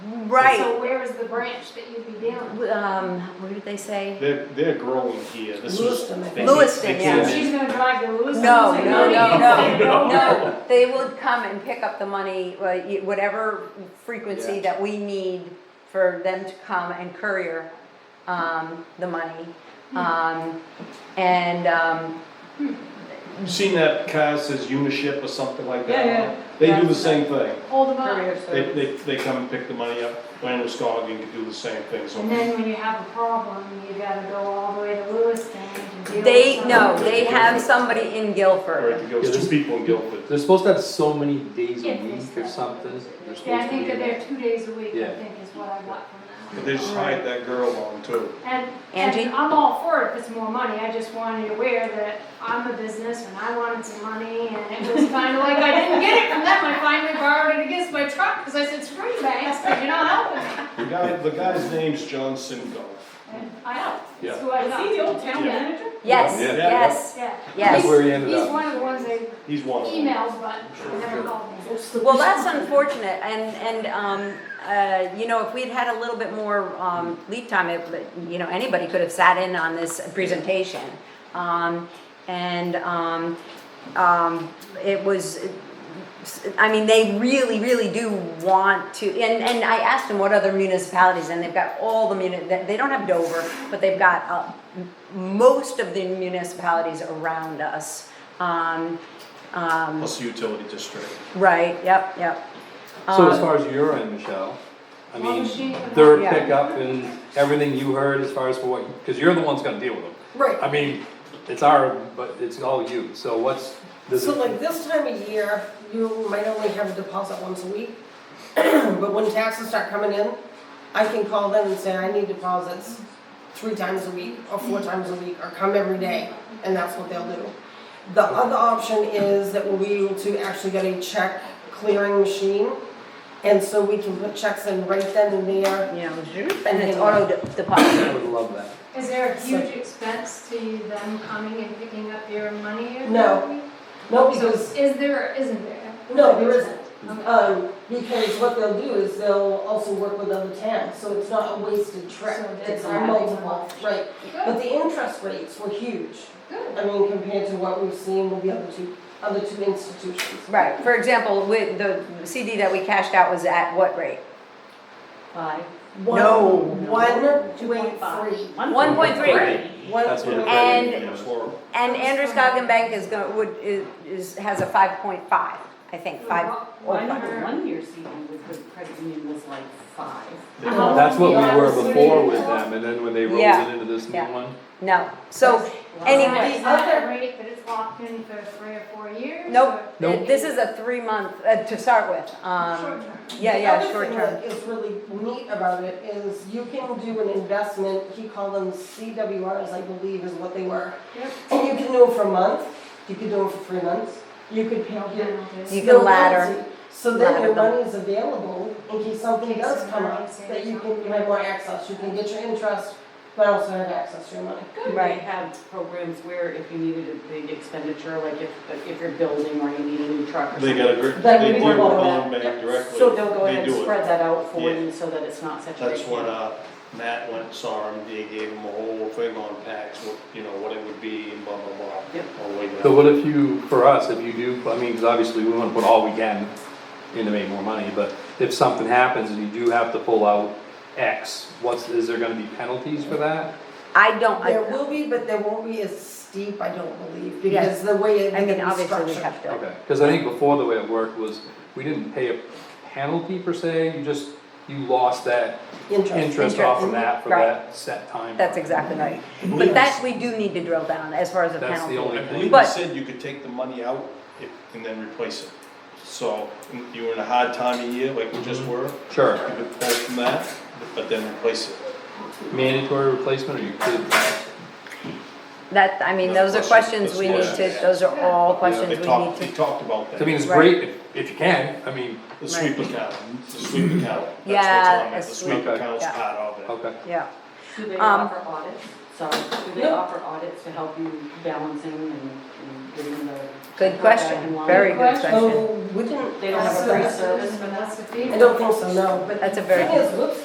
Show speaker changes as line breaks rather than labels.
Right.
So where is the branch that you'd be down?
Um, where did they say?
They're, they're growing here. This
Lewiston, I
was
think.
they-
Lewiston,
they
yeah.
came in.
She's gonna drive to Lewiston.
No,
It's like,
no, no,
you
Oh.
no,
can't go.
no. They would come and pick up the money, uh, y- whatever frequency
Yeah.
that we need for them to come and courier, um, the money. Um, and, um,
You seen that car says Uniship or something like that?
Yeah, yeah.
They do the same thing.
Hold them up.
Courier
They,
service.
they, they come and pick the money up. Land Scoggin can do the same thing, so.
And then when you have a problem, you gotta go all the way to Lewiston to deal with
they,
something.
no, they have somebody in
Or it
Guilford.
goes two people in Guilford.
They're supposed to have so many days a
Yeah,
week or
it's-
something. They're
Yeah, I
supposed to
think
be
that
there.
they're two days a week, I
Yeah.
think is what I got from
But
them.
they just hired that girl on too.
And,
Angie?
and I'm all for it if it's more money, I just wanted you aware that I'm a business and I wanted some money and it was kinda like I didn't get it from them, I finally borrowed it against my truck, because I said, screw you banks, because you're not helping me.
The guy, the guy's name's John Singo.
And I helped,
Yeah.
that's who I got.
the old
town
manager?
Yes,
Yeah.
yes,
Yeah.
yes.
That's where he ended
He's
up.
one of the ones they
He's one of them.
emailed, but they never called me.
Well, that's unfortunate, and, and, um, uh, you know, if we'd had a little bit more, um, lead time, it, but, you know, anybody could have sat in on this presentation. Um, and, um, um, it was, I mean, they really, really do want to, and, and I asked them what other municipalities, and they've got all the muni, they they don't have Dover, but they've got, uh, m- most of the municipalities around us. Um, um,
Plus the utility district.
right, yep, yep.
So
Um,
as far as your end, Michelle, I
Well, she-
mean, their
Yeah.
pickup and everything you heard as far as for what, because you're the one's gonna deal with them.
Right,
I mean, it's our, but it's all you, so what's, this
so like this time of year, you might only have a deposit once a week, but when taxes start coming in, I can call them and say, I need deposits three times a week, or four times a week, or come every day, and that's what they'll do. The other option is that we'll be able to actually get a check clearing machine, and so we can put checks in right then and there.
you know, and it's auto de- deposit.
I would love that.
Is there a huge expense to them coming and picking up your money? every
No.
week?
No,
So
because
is there, or isn't there?
No, there isn't.
Okay.
Um, because what they'll do is they'll also work with other towns, so it's not a wasted trip,
So that's
it's a
right.
multiple, right? But
Good,
the interest rates were huge,
good.
I mean, compared to what we've seen with the other two, other two institutions.
Right, for example, with the CD that we cashed out was at what rate?
Five.
No.
One, one, two, eight, three.
One point three.
One,
That's what it
three.
And-
It was horrible.
And Andrews Goggin Bank is going, would, is- is, has a five point five, I think, five.
One,
Whatever.
one year CD with the credit union was like five.
Uh-huh.
That's what we were before with
Yeah.
them, and then when they rolled
Yeah.
it into this new
Yeah.
one.
No, so
Is that-
anyway,
Is that a rate that it's locked in for three or four years?
nope,
or-
Nope.
this is a three month, uh, to start with,
Short
um,
term.
yeah, yeah,
The other
short
thing
term.
that is really neat about it is you can do an investment, he called them CWRs, I believe is what they were.
Yep.
And you can do them for a month, you could do them for three months, you could pay off your
You
Yeah.
can
Still
ladder-
guilty. So then
ladder
your
them.
money is available in case something
In case
does come
somebody
up,
says
that you can,
something.
you have more access, you can get your interest, but also have access to your money.
They
Right.
had programs where if you needed a big expenditure, like if, if you're building or you need a new truck or
They
something.
got a, gr-
Then
they
we
deal
were
with
going
Bond
back.
Bank directly.
So they'll go
They
ahead
do
and
it.
spread that out for
Yeah.
you so that it's not such a.
That's
big
what,
deal.
uh, Matt went, and saw him, they gave him a whole thing on tax, what, you know, what it would be and blah, blah, blah.
Yep.
All the way down.
So what if you, for us, if you do, I mean, because obviously we wanna put all we can in to make more money, but if something happens and you do have to pull out X, what's, is there gonna be penalties for that?
I don't,
There
I,
will be, but there won't be as steep, I don't believe,
Yes.
because the way it
I mean,
is
obviously we
structured.
have to.
Okay, because I think before the way it worked was, we didn't pay a penalty per se, you just, you lost that
Interest.
interest off of
Interest,
that for
right.
that set time.
That's exactly right.
Yes.
But that, we do need to drill down as far as the
That's the
penalty.
only
I believe
thing.
they
But-
said you could take the money out if- and then replace it. So if you were in a hard time of year, like we
Mm-hmm.
just were, you
Sure,
could pull from that, but then replace it.
mandatory replacement or you could,
That, I mean, those are questions we need to, those are all questions we
They
need
talked, they
to,
talked about
I mean,
that,
it's great if, if you can, I mean,
the sweep account, the sweep account. That's what's
Yeah,
on
a
it, the sweep
sweep,
account's
yeah.
part of it.
okay.
yeah.
Do they
Um,
offer audits? Sorry, do they
No.
offer audits to help you balancing and and getting the?
Good question, very good question.
So, we didn't.
They don't have a
so-
free service for that?
That's the fee.
I don't think so, no.
That's a very
Thing is, whoops,